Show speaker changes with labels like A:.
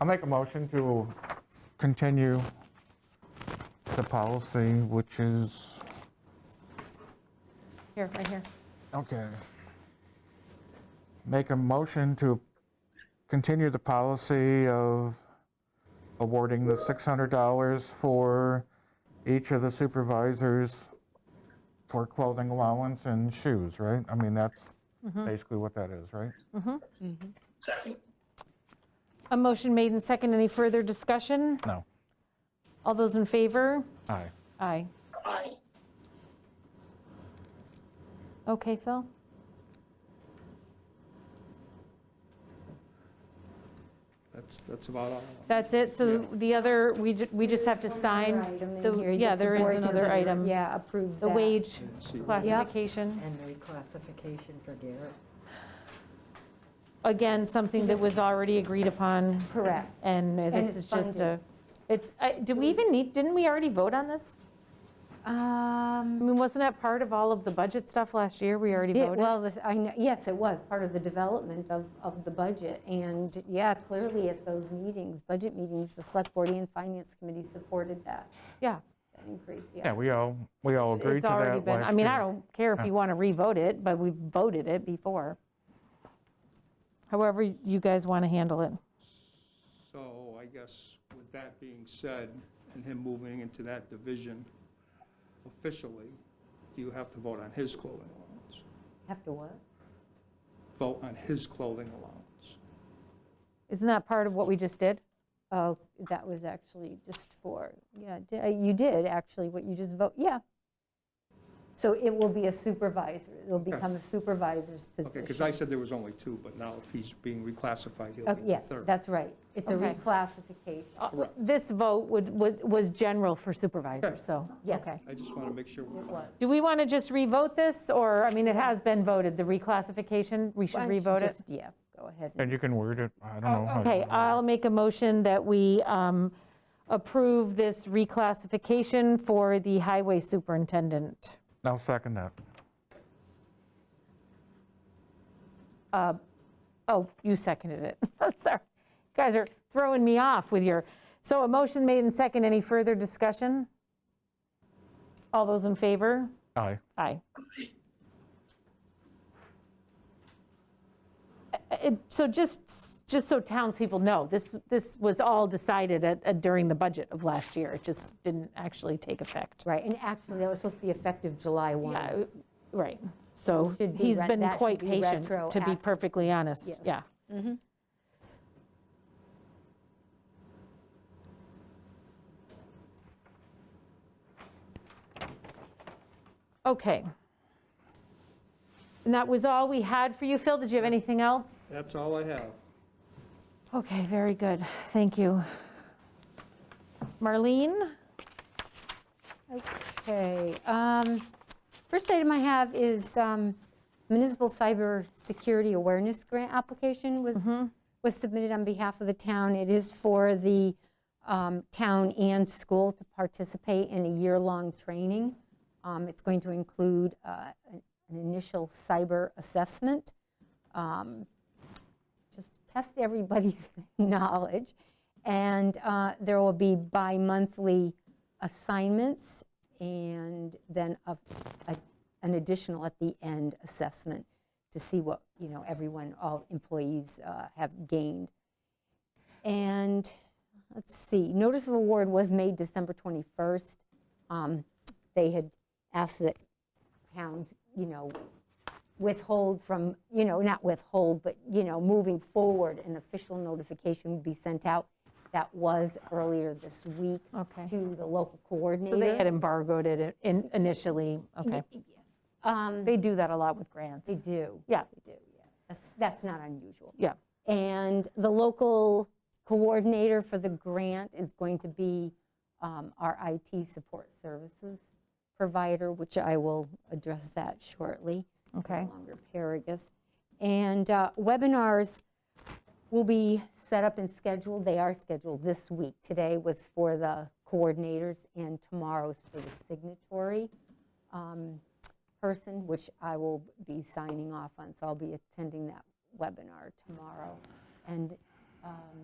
A: I'll make a motion to continue the policy, which is,
B: Here, right here.
A: okay. Make a motion to continue the policy of awarding the $600 for each of the supervisors for clothing allowance and shoes, right? I mean, that's
B: Mm-hmm.
A: basically what that is, right?
C: Second.
B: A motion made and second. Any further discussion?
A: No.
B: All those in favor?
A: Aye.
B: Aye.
C: Aye.
B: Okay, Phil?
D: That's, that's about all.
B: That's it? So the other, we ju- we just have to sign?
E: item in
B: the-
E: here
B: Yeah,
E: that the
B: there is
E: board can
B: another
E: just,
B: item.
E: Yeah, approve
B: The
E: that.
B: wage
D: see. Yep.
B: classification.
F: And the reclassification for Garrett.
B: Again, something that was already agreed upon.
E: Correct.
B: And this
E: it's
B: is just a,
E: funded.
B: it's, I- do we even need, didn't we already vote on this? I
E: Um,
B: mean, wasn't that part of all of the budget stuff last year? We already
E: yeah,
B: voted?
E: well, this- I, kn- yes, it was part of the development of, of the budget. And yeah, clearly at those meetings, budget meetings, the select board and finance committee supported that,
B: Yeah.
E: that increase,
A: Yeah,
E: yeah.
A: we all, we all agreed
B: It's
A: to that
B: already been, I
A: last
B: mean,
A: year.
B: I don't care if you want to revote it, but we voted it before. However you guys want to handle it.
D: So I guess with that being said, and him moving into that division officially, do you have to vote on his clothing allowance?
E: Have to what?
D: Vote on his clothing allowance.
B: Isn't that part of what we just did?
E: Oh, that was actually just for, yeah, d- uh, you did actually, what you just vote, yeah. So it will be a supervisor, it'll become a supervisor's position.
D: Okay, because I said there was only two, but now if he's being reclassified, he'll
E: Oh,
D: be the
E: Yes,
D: third.
E: that's right. It's a
B: Okay.
E: reclassification.
B: Uh,
D: Correct.
B: This vote would, would- was general for supervisor,
D: Yes.
B: so,
E: Yes.
B: okay.
D: I just want to make sure we're
E: It was.
D: clear.
B: Do we want to just revote this, or, I mean, it has been voted, the reclassification, we should
E: Why don't you
B: revote it?
E: just- Yeah, go ahead. and-
A: And you can word it, I don't know. how you
B: Oh, Okay,
A: word it.
B: I'll make a motion that we um, approve this reclassification for the highway superintendent.
A: I'll second that.
B: Oh, you seconded it. Sorry. You guys are throwing me off with your, so a motion made and second. Any further discussion? All those in favor?
A: Aye.
B: Aye. Uh, uh, So just, just so townspeople know, this, this was all decided at- at- during the budget of last year. It just didn't actually take effect.
E: Right, and actually, that was supposed to be effective July 1.
B: Yeah, uh, right. So
E: Should be
B: he's
E: re-
B: been
E: that should
B: quite
E: be
B: patient, to be
E: retroactive.
B: perfectly honest.
E: Yes. Mm-hmm.
B: Yeah. Okay. And that was all we had for you, Phil. Did you have anything else?
D: That's all I have.
B: Okay, very good. Thank you. Marlene?
E: Okay. um, First item I have is um, municipal cybersecurity awareness grant application was
B: Mm-hmm.
E: was submitted on behalf of the town. It is for the um, town and school to participate in a year-long training. Um, It's going to include uh, an an initial cyber assessment just test everybody's knowledge. And uh, there will be bi-monthly assignments and then a- a- an additional at the end assessment to see what, you know, everyone, all employees uh, have gained. And let's see, notice of award was made December 21st. Um, They had asked that towns, you know, withhold from, you know, not withhold, but, you know, moving forward, an official notification would be sent out. That was earlier this week
B: Okay.
E: to the local
B: So they had
E: coordinator.
B: embargoed it in- initially. Okay.
E: Um,
B: They do that a lot with grants.
E: They do.
B: Yeah,
E: They do, yeah. That's- That's not unusual.
B: yeah.
E: And the local coordinator for the grant is going to be um, our IT support services provider, which I will address that shortly.
B: Okay.
E: No longer Paragus. And uh, webinars will be set up and scheduled. They are scheduled this week. Today was for the coordinators and tomorrow's for the signatory um, person, which I will be signing off on. So I'll be attending that webinar tomorrow. And um,